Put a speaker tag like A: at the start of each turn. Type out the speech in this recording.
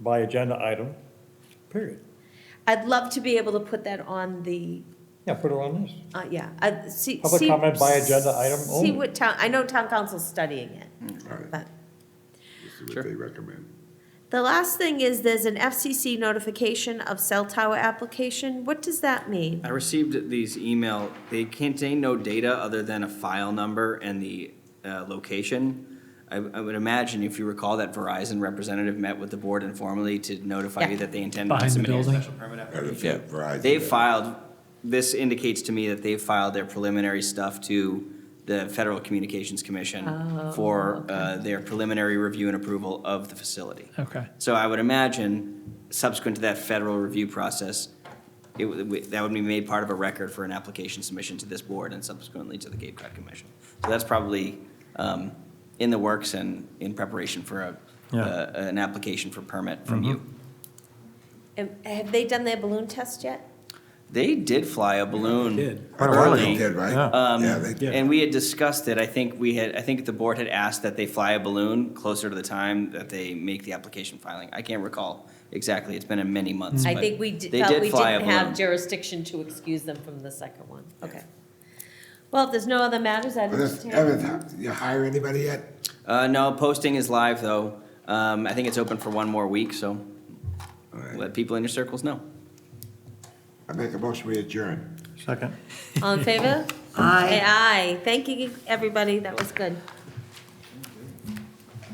A: by agenda item, period.
B: I'd love to be able to put that on the,
A: Yeah, put it on this.
B: uh, yeah, I, see.
A: Public
B: see-
A: comment by agenda item only.
B: See what town, I know town council's studying it,
C: All right,
B: but.
C: this is what they recommend.
B: The last thing is there's an FCC notification of cell tower application. What does that mean?
D: I received these email, they contain no data other than a file number and the uh, location. I I would imagine, if you recall, that Verizon representative met with the board informally to notify you
B: Yeah.
D: that they intended to
E: Behind the
D: submit a
E: building?
D: special permit
C: Yeah,
D: application.
C: Verizon.
D: They filed, this indicates to me that they filed their preliminary stuff to the Federal Communications Commission for uh, their preliminary review and approval of the facility.
E: Okay.
D: So I would imagine, subsequent to that federal review process, it, would- we- that would be made part of a record for an application submission to this board and subsequently to the Cape Cod Commission. So that's probably um, in the works and in preparation for a-
A: Yeah.
D: a, an application for permit from you.
B: Am- Have they done their balloon test yet?
D: They did fly a balloon
E: did.
C: I thought they
D: early.
C: did, right?
A: Yeah.
D: Um,
C: Yeah, they did.
D: And we had discussed it, I think we had, I think the board had asked that they fly a balloon closer to the time that they make the application filing. I can't recall exactly, it's been in many months.
B: I
D: but
B: think we d-
D: they
B: felt
D: did
B: we
D: fly a
B: didn't have
D: balloon.
B: jurisdiction to excuse them from the second one. Okay. Well, if there's no other matters, I'd
C: This-
B: entertain.
C: Evan, you hire anybody yet?
D: Uh, no, posting is live, though. Um, I think it's open for one more week, so
C: All right.
D: let people in your circles know.
C: I make a motion, we adjourn.
A: Second.
B: All in favor? Aye. Aye. Thank you, everybody. That was good.